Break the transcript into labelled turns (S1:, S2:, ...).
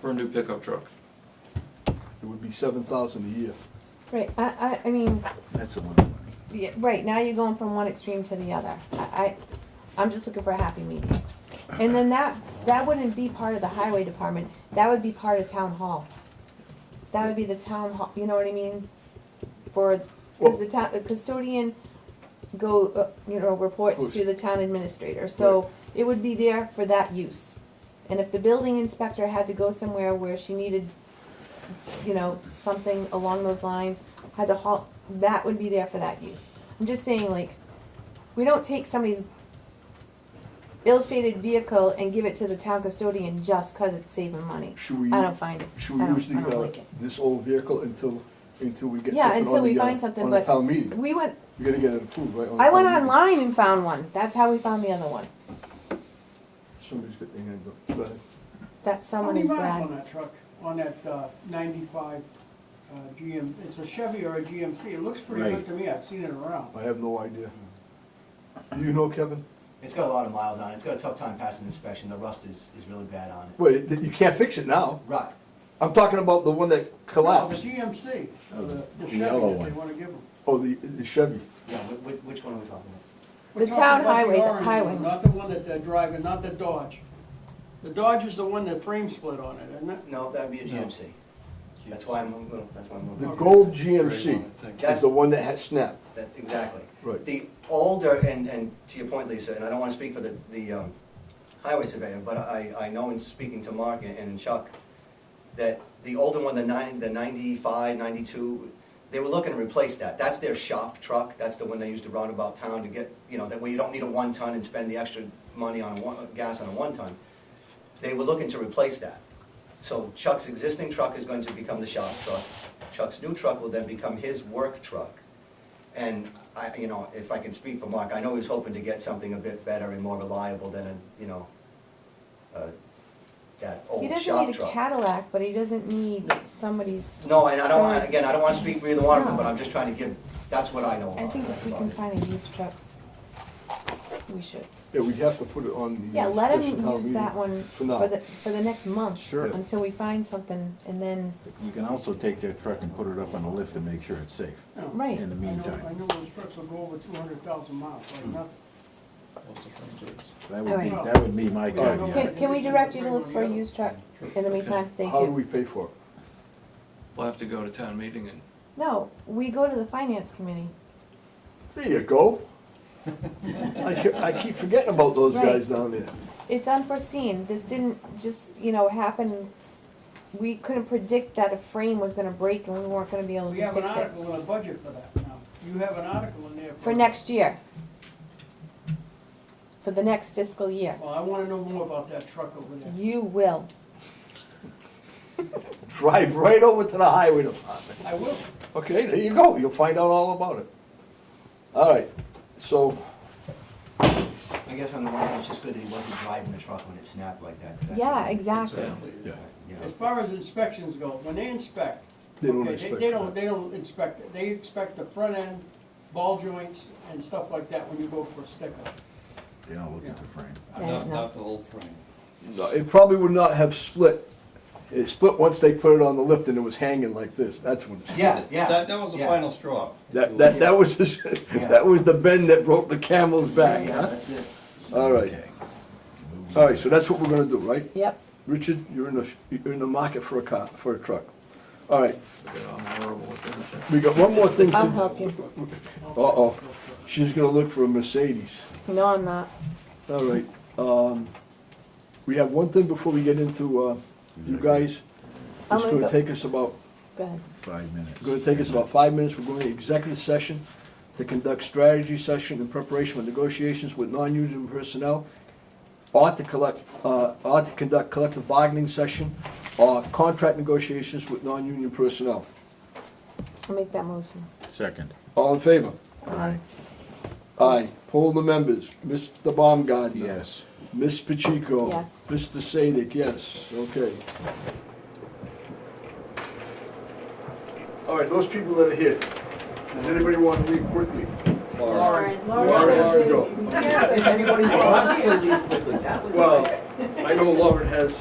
S1: for a new pickup truck.
S2: It would be seven thousand a year.
S3: Right, I, I, I mean,
S4: That's a lot of money.
S3: yeah, right, now you're going from one extreme to the other. I, I, I'm just looking for a happy medium. And then that, that wouldn't be part of the highway department, that would be part of town hall. That would be the town hall, you know what I mean? For, cause the town, the custodian go, uh, you know, reports to the town administrator, so it would be there for that use. And if the building inspector had to go somewhere where she needed, you know, something along those lines, had to haul, that would be there for that use. I'm just saying, like, we don't take somebody's ill-fated vehicle and give it to the town custodian just 'cause it's saving money.
S2: Should we,
S3: I don't find it.
S2: should we
S3: I don't-
S2: use the,
S3: I don't
S2: uh,
S3: like it.
S2: this old vehicle until, until we get
S3: Yeah,
S2: something
S3: until
S2: on
S3: we
S2: the,
S3: find
S2: uh,
S3: something,
S2: on the
S3: but-
S2: town meeting?
S3: We went,
S2: We gotta get it approved, right? on the
S3: I went
S2: town meeting.
S3: online and found one. That's how we found the other one.
S2: Somebody's got their hand up. Go ahead.
S3: That
S5: How
S3: someone
S5: many
S3: is
S5: miles on
S3: Brad.
S5: that truck, on that uh, ninety-five uh, GM, it's a Chevy or a GMC, it looks pretty
S4: Right.
S5: good to me, I've seen it around.
S2: I have no idea. Do you know, Kevin?
S6: It's got a lot of miles on it. It's got a tough time passing inspection. The rust is, is really bad on it.
S2: Wait, you can't fix it now.
S6: Right.
S2: I'm talking about the one that
S5: No, The
S2: collapsed.
S5: GMC, uh,
S4: Oh,
S5: the
S4: the
S5: the Chevy
S4: yellow
S5: that they
S4: one.
S5: wanna give them.
S2: Oh, the, the Chevy.
S6: Yeah, which, which one are we talking about?
S5: We're
S3: The
S5: talking
S3: town
S5: about the
S3: highway, the
S5: orange one,
S3: highway.
S5: Not the one that they're driving, not the Dodge. The Dodge is the one that frame split on it, isn't it?
S6: No, that'd be a GMC. That's why I'm, a little- that's why I'm. a
S2: The
S6: little-
S2: gold GMC is
S6: That's-
S2: the one that had snapped.
S6: That, exactly.
S2: Right.
S6: The older, and, and to your point, Lisa, and I don't want to speak for the, the um, highway surveyor, but I, I know in speaking to Mark and- and Chuck, that the older one, the nine, the ninety-five, ninety-two, they were looking to replace that. That's their shop truck, that's the one they used to round about town to get, you know, that way you don't need a one-ton and spend the extra money on a one, gas on a one-ton. They were looking to replace that. So Chuck's existing truck is going to become the shop truck. Chuck's new truck will then become his work truck. And I, you know, if I can speak for Mark, I know he's hoping to get something a bit better and more reliable than, a you know, uh, that
S5: Oh,
S3: He
S6: old
S3: doesn't
S6: shop
S3: need a
S6: truck.
S3: Cadillac, but he doesn't need somebody's.
S6: No, and I don't, wanna- again, I don't wanna speak for either one of them,
S3: No.
S6: but I'm just trying to give, that's what I know about
S3: I
S6: it.
S3: think if we can
S6: about it.
S3: find a used truck, we should.
S2: Yeah, we have to put it on the.
S3: Yeah, let
S2: special
S3: him
S2: town
S3: use
S2: meeting
S3: that one
S2: For
S3: for
S2: now.
S3: the, for the next month.
S4: Sure.
S3: Until we find something and then,
S4: You can also take their truck and put it up on a lift and make sure it's safe
S5: No.
S3: right.
S4: in the
S5: I know- I
S4: meantime.
S5: know those trucks will go over two hundred thousand miles, like nothing.
S4: That would be,
S5: Alright.
S4: that would be my
S5: Alright.
S4: caveat.
S3: Can, can we direct you to look for a used truck in the meantime? Thank
S2: How do we
S3: you.
S2: pay for it?
S1: We'll have to go to town meeting and
S3: No, we go to the finance committee.
S2: There you go. I, ke- I keep forgetting about those
S3: Right.
S2: guys down there.
S3: It's unforeseen. This didn't just, you know, happen. We couldn't predict that a frame was gonna break and we weren't gonna be able
S5: We
S3: to
S5: have an
S3: fix it.
S5: article in the budget for that now. You have an article in there for.
S3: For next year. For the next fiscal year.
S5: Well, I wanna know more about that truck over there.
S3: You will.
S2: Drive right over to the highway department.
S5: I will.
S2: Okay, there you go. You'll find out all about it. All right, so,
S6: I guess on the one hand, it's just good that he wasn't driving the truck when it snapped like that. 'cause that-
S3: Yeah, exactly.
S2: yeah,
S6: You know,
S5: As far as inspections go, when they inspect,
S2: They don't
S5: okay,
S2: inspect that.
S5: They don't, they don't inspect it, they inspect the front end, ball joints and stuff like that when you go for a sticker.
S4: They don't look at the frame.
S3: Yeah,
S7: Not,
S3: no.
S7: not the whole frame.
S2: No, it probably would not have split. It split once they put it on the lift and it was hanging like this. That's when it split.
S6: Yeah, yeah.
S7: That, that was the
S6: yeah.
S7: final straw.
S2: That, that, that was, that was the bend that broke the camel's
S6: Yeah,
S2: back,
S6: yeah,
S2: huh?
S6: that's it.
S2: All right,
S4: Okay.
S2: all right, so that's what we're gonna do, right?
S3: Yep.
S2: Richard, you're in the, you're in the market for a car, for a truck. All right,
S1: you know, I'm horrible with everything.
S2: we got one more thing to.
S3: I'll help you.
S2: Uh-oh, she's gonna look for a Mercedes.
S3: No, I'm not.
S2: All right, um, we have one thing before we get into, uh, you guys.
S3: I'm
S2: It's
S3: gonna
S2: gonna
S3: go-
S2: take us about
S3: Go ahead.
S4: Five minutes.
S2: It's gonna take us about five minutes, we're going to executive session to conduct strategy session in preparation for negotiations with non-union personnel, or to collect, uh, or to conduct collective bargaining session, or contract negotiations with non-union personnel.
S3: I'll make that motion.
S4: Second.
S2: All in favor?
S4: Aye.
S2: Aye. Poll the members, Mr. Baumgartner.
S4: Yes.
S2: Ms. Pacheco.
S3: Yes.
S2: Mr. Sadik, yes, okay. All right, those people that are here, does anybody want to leave quickly?
S3: Lauren.
S2: Lauren has to go.
S6: Yes, if anybody wants to leave quickly, that would be.
S2: Well, I know Lauren has